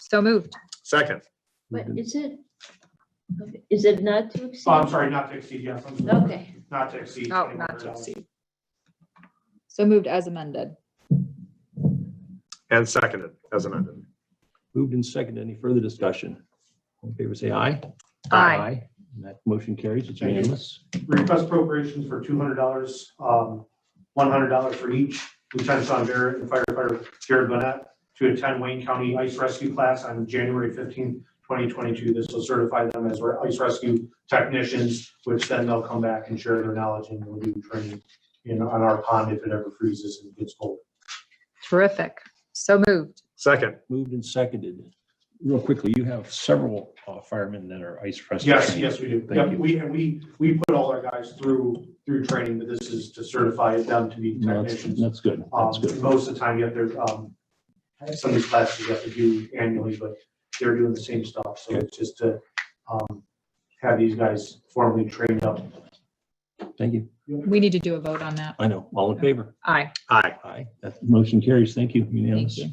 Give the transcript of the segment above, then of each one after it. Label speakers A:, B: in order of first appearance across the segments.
A: So moved.
B: Second,
C: But
D: Mm-hmm.
C: is it, okay, is it not to
E: Oh, I'm
C: exceed?
E: sorry, not to exceed, yes, I'm sorry.
C: Okay,
E: Not to exceed.
A: Oh, not to exceed. So moved as amended.
B: and seconded, as amended.
D: Moved and seconded. Any further discussion? All in favor, say aye.
A: Aye.
D: And That motion carries. It's
E: Thank you.
D: unanimous.
E: Request appropriations for two hundred dollars, um, one hundred dollars for each Lieutenant Sean Barrett and firefighter Jared Bonnet to attend Wayne County Ice Rescue Class on January fifteenth, twenty twenty-two. This will certify them as our ice rescue technicians, which then they'll come back and share their knowledge and we'll do training in, on our pond if it ever freezes and gets cold.
A: Terrific. So moved.
B: Second,
D: Moved and seconded. Real quickly, you have several uh, firemen that are ice rescue.
E: Yes,
D: trained.
E: yes, we do.
D: Thank
E: Yep,
D: you.
E: we, and we, we put all our guys through, through training, but this is to certify them to be
D: No, That's
E: technicians.
D: that's good.
E: Um,
D: That's good.
E: most of the time, you have to, um, some of these classes you have to do annually, but they're doing the same stuff, so
D: Okay.
E: it's just to, um, have these guys formally trained up.
D: Thank you.
A: We need to do a vote on that.
D: I know. All in favor?
A: Aye.
B: aye.
D: Aye. That motion carries. Thank you.
A: Thank
D: Unanimous.
A: you.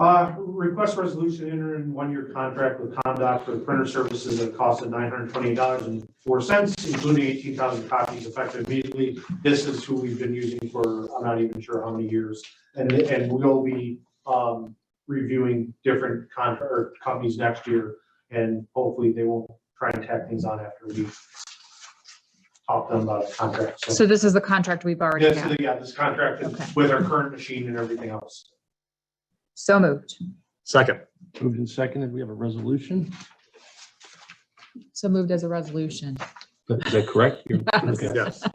E: Uh, request resolution enter in one-year contract with Comdoc for printer services at a cost of nine hundred twenty dollars and four cents, including eighteen thousand copies effective immediately. This is who we've been using for, I'm not even sure how many years. And, and we'll be, um, reviewing different contract, or companies next year. And hopefully they won't try and tack things on after we talk to them about a contract. So
A: So this is the contract we've already
E: this,
A: had.
E: yeah, this contract
A: Okay.
E: is with our current machine and everything else.
A: So moved.
B: Second,
D: Moved and seconded. We have a resolution.
A: So moved as a resolution.
D: Is that correct? You're-
A: Yes.
D: okay.
B: yes,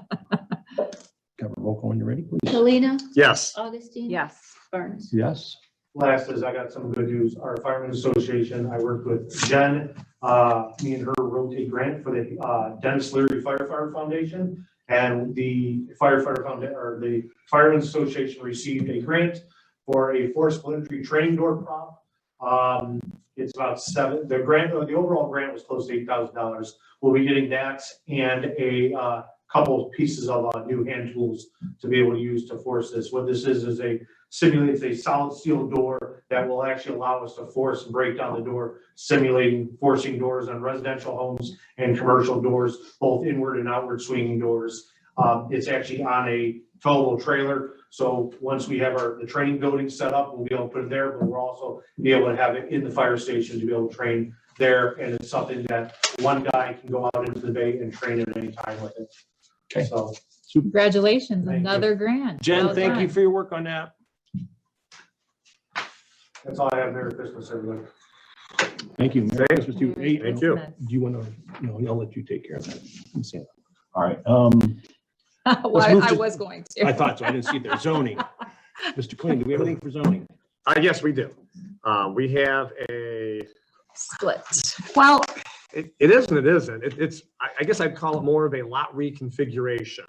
D: Cover roll call when you're ready, please.
C: Selena,
B: yes.
C: Augustine.
A: Yes.
C: Burns.
D: Yes.
E: Last is I got some good news. Our Firemen Association, I worked with Jen, uh, me and her wrote a grant for the, uh, Dennis Leary Firefighter Foundation. And the firefighter foundation, or the Firemen Association received a grant for a forceful entry training door prop. Um, it's about seven, the grant, the overall grant was close to eight thousand dollars. We'll be getting that and a, uh, couple of pieces of, uh, new hand tools to be able to use to force this. What this is, is a simulates a solid steel door that will actually allow us to force and break down the door, simulating forcing doors on residential homes and commercial doors, both inward and outward swinging doors. Um, it's actually on a towable trailer, so once we have our, the training building set up, we'll be able to put it there, but we'll also be able to have it in the fire station to be able to train there, and it's something that one guy can go out into the bay and train at any time with it.
D: Okay.
E: So,
A: Congratulations,
E: Thank you.
A: another grant.
D: Jen,
A: Well
D: thank you
A: done.
D: for your work on that.
E: that's all I have, Merry Christmas, everybody.
D: Thank you. Merry
B: Thank-
D: Christmas to you. Hey,
A: Merry
B: Thank you.
A: Christmas.
D: Do you want to, no, I'll let you take care of that. I'm saying- All right, um,
A: Well,
D: move
A: I
D: to-
A: was going to.
D: I thought so. I didn't see there. Zoning. Mr. Klein, do we have anything for zoning?
B: Uh, yes, we do. Uh, we have a,
A: Split. Well,
B: it, it is and it isn't. It, it's, I, I guess I'd call it more of a lot reconfiguration.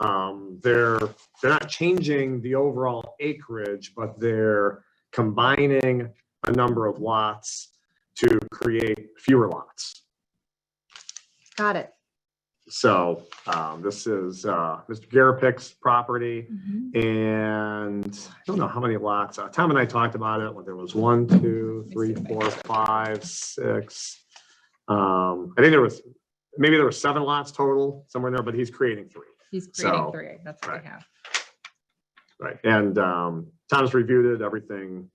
B: Um, they're, they're not changing the overall acreage, but they're combining a number of lots to create fewer lots.
A: got it.
B: So, um, this is, uh, Mr. Garapick's property.
A: Mhm.
B: And I don't know how many lots, uh, Tom and I talked about it, when there was one, two, three, four, five, six. Um, I think there was, maybe there were seven lots total, somewhere in there, but he's creating three.
A: He's creating
B: So,
A: three. That's what
B: right.
A: we have.
B: Right. And, um, Tom's reviewed it, everything,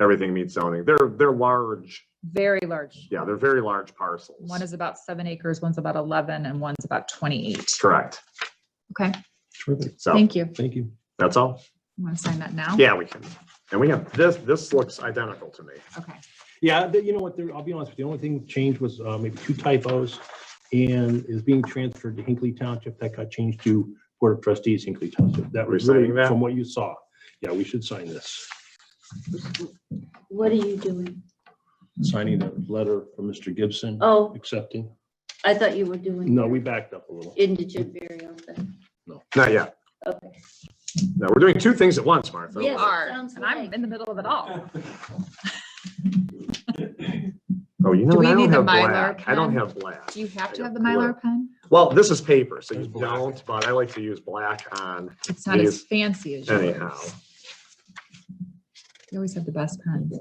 B: everything meets zoning. They're, they're large,
A: Very large.
B: yeah, they're very large parcels.
A: One is about seven acres, one's about 11, and one's about 28.
B: Correct.
A: Okay,
D: Terrific.
B: So
A: thank you.
D: Thank you.
B: that's all.
A: Want to sign that now?
B: Yeah, we can. And we have, this, this looks identical to me.
A: Okay.
D: Yeah, the- you know what, there- I'll be honest with you, the only thing changed was uh, maybe two typos and is being transferred to Hinkley Township. That got changed to Board of Trustees Hinkley Township. That
B: We're
D: was really
B: signing that?
D: from what you saw. Yeah, we should sign this.
C: What are you doing?
D: Signing that letter from Mr. Gibson,
C: Oh,
D: accepting.
C: I thought you were doing.
D: No, we backed up a little.
C: Indigent burial thing.
B: Not yet.
C: Okay.
B: No, we're doing two things at once, Martha.
C: Yes.
A: Are,
C: sounds
A: and I'm
C: like-
A: in the middle of it all.
B: Oh, you know,
A: Do
B: what?
A: we
B: I
A: need
B: don't
A: the
B: have
A: Mylar
B: black. I don't
A: pen?
B: have black.
A: Do you have to
B: I
A: have the
B: got blue.
A: Mylar pen?
B: Well, this is paper, so you
D: There's black.
B: don't, but I like to use black on
A: It's not as
B: These-
A: fancy as
B: anyhow.
A: yours. You always have the best pens.